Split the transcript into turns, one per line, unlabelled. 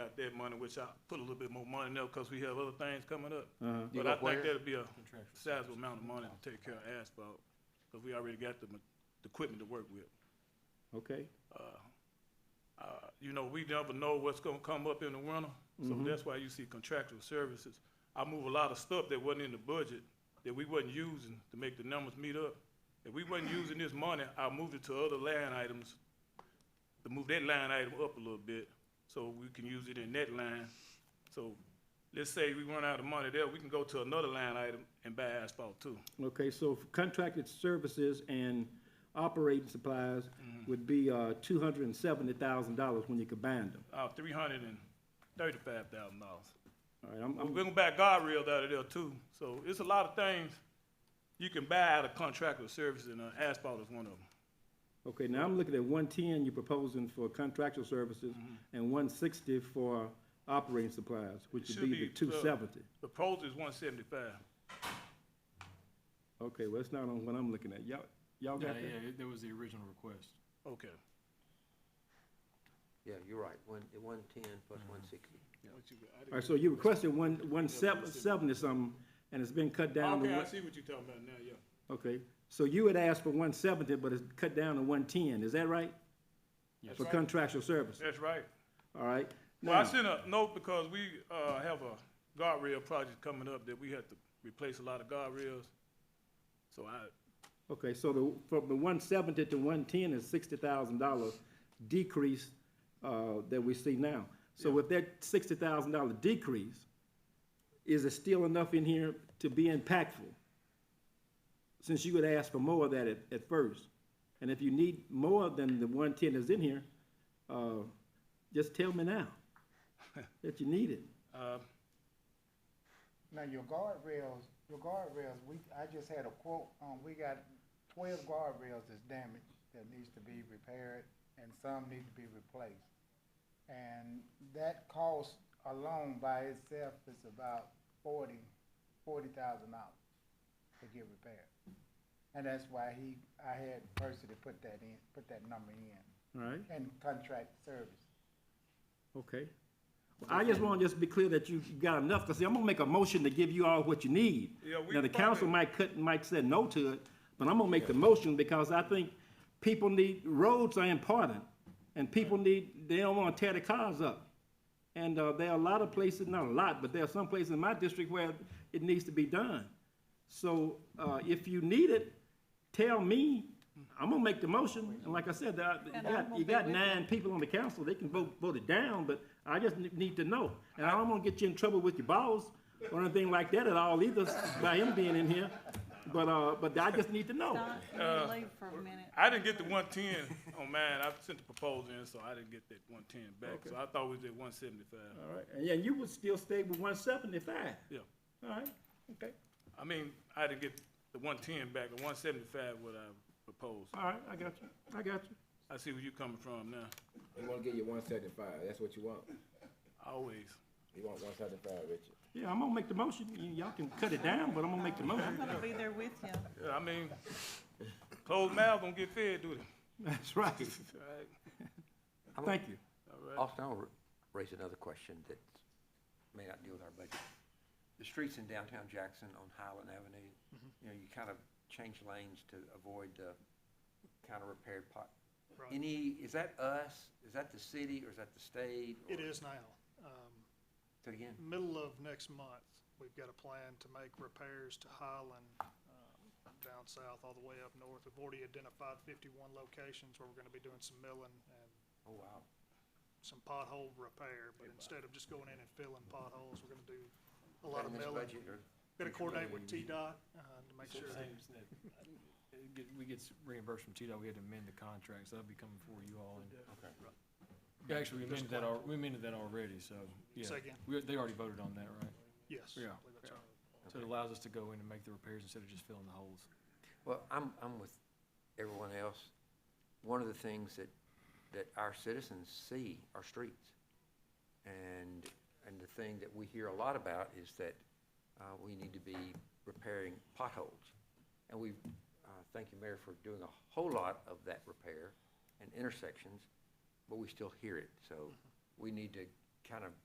like that money, which I put a little bit more money in there because we have other things coming up.
You
But
go
I think
where?
that'll be a sizable amount of money to take care of asphalt, because we already got the, ma- the equipment to work with.
Okay,
Uh, You know, we never know what's gonna come up in the winter, so that's why you see contractual services. I move a lot of stuff that wasn't in the budget, that we wasn't using to make the numbers meet up. If we wasn't using this money, I moved it to other line items, to move that line item up a little bit, so we can use it in that line. So, let's say we run out of money there, we can go to another line item and buy asphalt too.
okay, so for contracted services and operating supplies
Mm-hmm.
would be, uh, two hundred and seventy thousand dollars when you combine them.
uh, three hundred and thirty-five thousand dollars.
All right, I'm,
We're
I'm,
gonna buy guardrails out of there too, so it's a lot of things you can buy out of contractual services, and uh, asphalt is one of them.
okay, now I'm looking at one-ten you're proposing for contractual services
Mm-hmm.
and one-sixty for operating supplies, which
It
would be the
should be, uh,
two-seventy.
The proposal is one seventy-five.
Okay, well, that's not on what I'm looking at. Y'all, y'all
Yeah,
got that?
yeah, it- that was the original request.
Okay.
Yeah, you're right, one, one-ten plus
Mm-hmm.
one-sixty.
All right, so you requested one, one seven, seventy something, and it's been cut down to
Okay, I
one,
see what you're talking about now, yeah.
okay. So you had asked for one seventy, but it's cut down to one ten, is that right?
Yes.
For contractual service,
That's right.
all right?
Well, I
Now,
sent a note because we, uh, have a guardrail project coming up that we have to replace a lot of guardrails. So I,
okay, so the, from the one seventy to one ten is sixty thousand dollar decrease, uh, that we see now. So with that sixty thousand dollar decrease, is it still enough in here to be impactful? Since you had asked for more of that at, at first, and if you need more than the one ten that's in here, uh, just tell me now that you need it.
uh,
Now, your guardrails, your guardrails, we, I just had a quote, um, we got twelve guardrails that's damaged that needs to be repaired and some need to be replaced. And that cost alone by itself is about forty, forty thousand dollars to get repaired. And that's why he, I had Percy to put that in, put that number in,
All right,
and contract service.
okay. Well, I just want to just be clear that you got enough, because I'm gonna make a motion to give you all what you need.
Yeah, we
Now, the council
probably-
might cut, might say no to it, but I'm gonna make the motion because I think people need, roads are important. And people need, they don't want to tear the cars up. And, uh, there are a lot of places, not a lot, but there are some places in my district where it needs to be done. So, uh, if you need it, tell me, I'm gonna make the motion, and like I said, uh, you
And I'm
got,
gonna
you
be
got
with
nine people on the council, they can vote, vote it down, but I just ne- need to know. And I don't wanna get you in trouble with your boss or anything like that at all either, by him being in here, but, uh, but I just need to know.
Don, let me leave for a minute.
I didn't get the one ten on mine. I sent the proposal in, so I didn't get that one ten back. So I thought we did one seventy-five.
All right, and yeah, you would still stay with one seventy-five,
Yeah,
all right, okay,
I mean, I didn't get the one ten back, the one seventy-five what I proposed.
all right, I got you, I got you.
I see where you coming from now,
He wanna give you one seventy-five, that's what you want.
always.
He want one seventy-five, Richard.
Yeah, I'm gonna make the motion, Y- y'all can cut it down, but I'm gonna make the
I'm
motion.
gonna be there with you.
Yeah, I mean, closed mouths don't get fed, do they?
That's right,
All right,
thank you.
all right.
Austin, I'll r- raise another question that may not deal with our budget. The streets in downtown Jackson on Highland Avenue,
Mm-hmm.
you know, you kind of change lanes to avoid the kind of repaired pot. Any, is that us? Is that the city or is that the state?
It
or-
is now. Um,
Say it again?
Middle of next month, we've got a plan to make repairs to Highland, um, down south, all the way up north. We've already identified fifty-one locations where we're gonna be doing some milling and
Oh, wow.
some pothole repair. But instead of just going in and filling potholes, we're gonna do
Is
a lot
that in
of
this
milling.
budget or-
Gonna coordinate with T-Dot, uh, to make sure. that-
uh, It get- We get reimbursed from TDOT, we had to amend the contract, so that'll be coming for you all. and-
Okay.
Yeah, Actually, we amended that, al- we amended that already, so, yeah.
Say again?
We, they already voted on that, right?
Yes. I
Yeah.
believe that's right.
So it allows us to go in and make the repairs instead of just filling the holes.
Well, I'm, I'm with everyone else. One of the things that, that our citizens see are streets. And, and the thing that we hear a lot about is that uh, we need to be repairing potholes. And we, thank you, Mayor, for doing a whole lot of that repair and intersections, but we still hear it. So we need to kind of